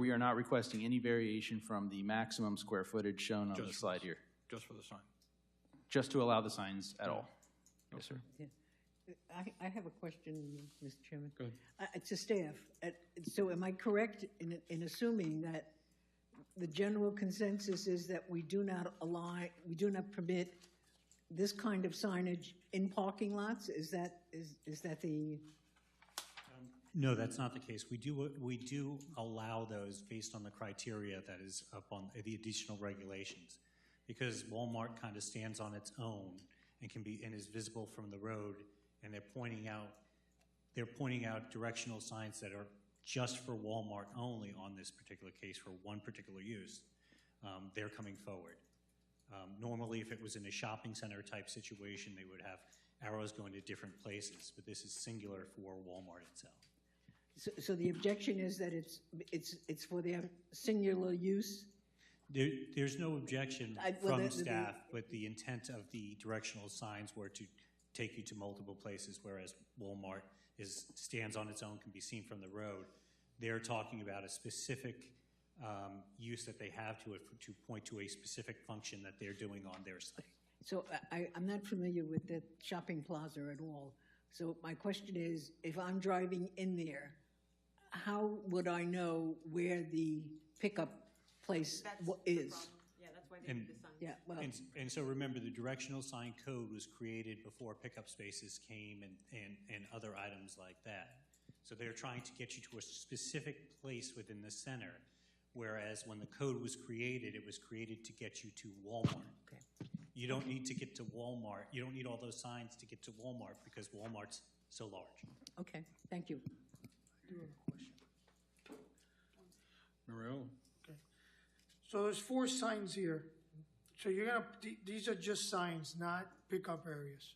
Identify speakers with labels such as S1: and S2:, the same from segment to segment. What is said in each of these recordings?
S1: we are not requesting any variation from the maximum square footage shown on the
S2: Just-
S1: slide here,
S2: just for the sign.
S1: just to allow the signs at all. Yes, sir.
S3: I, I have a question, Mr. Chairman.
S2: Go ahead.
S3: Uh, To staff, Uh, so am I correct in, in assuming that the general consensus is that we do not allow, we do not permit this kind of signage in parking lots? Is that, is, is that the,
S4: No, that's not the case. We do, we do allow those based on the criteria that is up on the additional regulations. Because Walmart kind of stands on its own and can be, and is visible from the road, and they're pointing out, they're pointing out directional signs that are just for Walmart only on this particular case for one particular use. Um, They're coming forward. Um, Normally, if it was in a shopping center type situation, they would have arrows going to different places, but this is singular for Walmart itself.
S3: so, so the objection is that it's, it's, it's for their singular use?
S4: There, there's no objection
S3: I- well, the-
S4: from
S3: the-
S4: staff, but the intent of the directional signs were to take you to multiple places, whereas Walmart is, stands on its own, can be seen from the road. They're talking about a specific, um, use that they have to, it to point to a specific function that they're doing on their site.
S3: So I- I, I'm not familiar with that shopping plaza at all. So my question is, if I'm driving in there, how would I know where the pickup place
S5: That's
S3: wa-
S5: the
S3: is?
S5: problem. Yeah, that's why they need
S4: And-
S5: the sign.
S3: Yeah, well,
S4: And, and so remember, the directional sign code was created before pickup spaces came and, and, and other items like that. So they're trying to get you to a specific place within the center, whereas when the code was created, it was created to get you to Walmart.
S3: Okay.
S4: You don't need to get to Walmart, you don't need all those signs to get to Walmart because Walmart's so large.
S3: okay, thank you.
S2: Mario,
S6: So there's four signs here. So you're gonna, th- these are just signs, not pickup areas.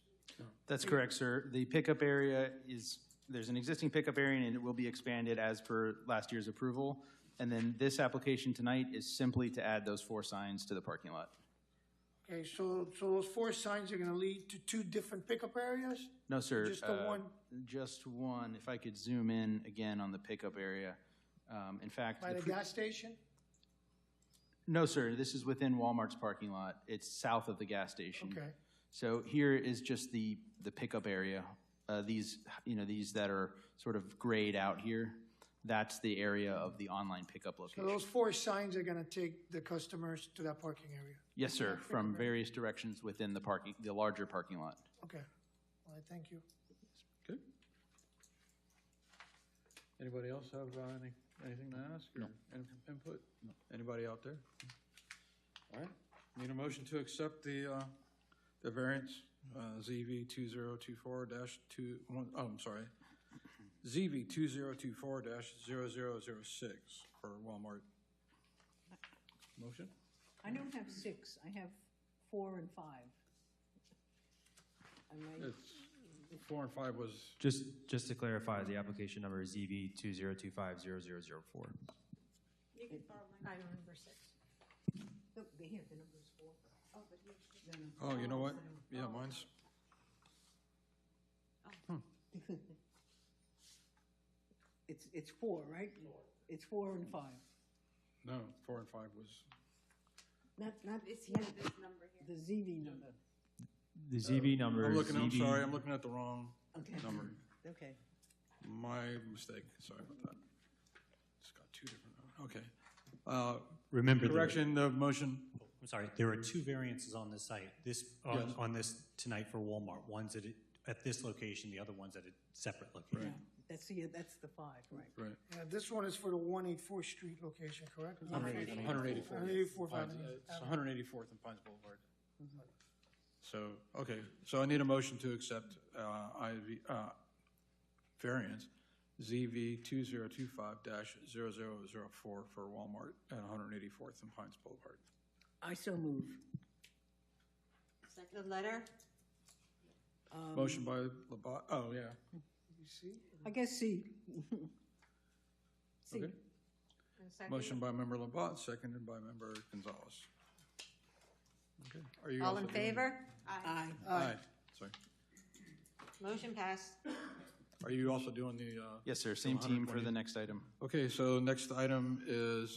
S1: That's correct, sir. The pickup area is, there's an existing pickup area, and it will be expanded as per last year's approval. And then this application tonight is simply to add those four signs to the parking lot.
S6: Okay, so, so those four signs are gonna lead to two different pickup areas?
S1: No, sir.
S6: Just the
S1: uh,
S6: one?
S1: Just one. If I could zoom in again on the pickup area. Um, In fact,
S6: By
S1: the
S6: the
S1: pre-
S6: gas station?
S1: no, sir, this is within Walmart's parking lot. It's south of the gas station.
S6: Okay,
S1: So here is just the, the pickup area. Uh, These, you know, these that are sort of grayed out here, that's the area of the online pickup
S6: so
S1: location.
S6: those four signs are gonna take the customers to that parking area.
S1: Yes, sir, from various directions within the parking, the larger parking lot.
S6: Okay, all right, thank you.
S2: good. Anybody else have uh, any, anything to ask or any input? Anybody out there? All right, need a motion to accept the, uh, the variance, uh, ZV two zero two four dash two, one, oh, I'm sorry. ZV two zero two four dash zero zero zero six for Walmart. Motion?
S3: I don't have six, I have four and five. Am I-
S2: It's, four and five was,
S7: Just, just to clarify, the application number is ZB two zero two five zero zero zero four.
S5: You can borrow mine. I remember six.
S3: Look, they have Oh, the numbers four. No,
S5: Oh,
S3: no.
S2: oh, you know what? Yeah, mine's,
S3: It's, it's four, right? It's four and five,
S2: no, four and five was.
S3: not, not
S5: It's here, this number here.
S3: the ZV number.
S7: The ZB number
S2: Uh, I'm
S7: is
S2: looking, I'm
S7: ZB
S2: sorry, I'm looking at the wrong
S3: Okay,
S2: number.
S3: okay.
S2: My mistake, sorry about that. It's got two different, okay. Uh,
S4: Remember, there-
S2: Correction, the motion,
S4: I'm sorry, there are two variances on this site, this, on, on this tonight for Walmart. One's at, a- at this location, the other one's at a separate location.
S3: That's the, that's the five, right?
S2: right,
S6: Yeah, this one is for the one eight four street location, correct?
S2: hundred eighty-four.
S6: 184,
S2: It's hundred eighty-fourth and Pines Boulevard. So, okay, so I need a motion to accept, uh, IV, uh, variance, ZV two zero two five dash zero zero zero four for Walmart at hundred eighty-fourth and Pines Boulevard.
S3: I so move.
S5: Second letter?
S2: Motion by Labat, oh, yeah,
S6: You see?
S3: I guess C. C.
S2: okay. Motion by member Labat, seconded by member Gonzalez. Okay. Are you
S8: All
S2: also
S8: in
S2: doing-
S8: favor?
S5: Aye.
S3: Aye.
S2: Aye, sorry.
S8: Motion passed.
S2: Are you also doing the, uh,
S1: Yes, sir, same team for the next item.
S2: okay, so next item is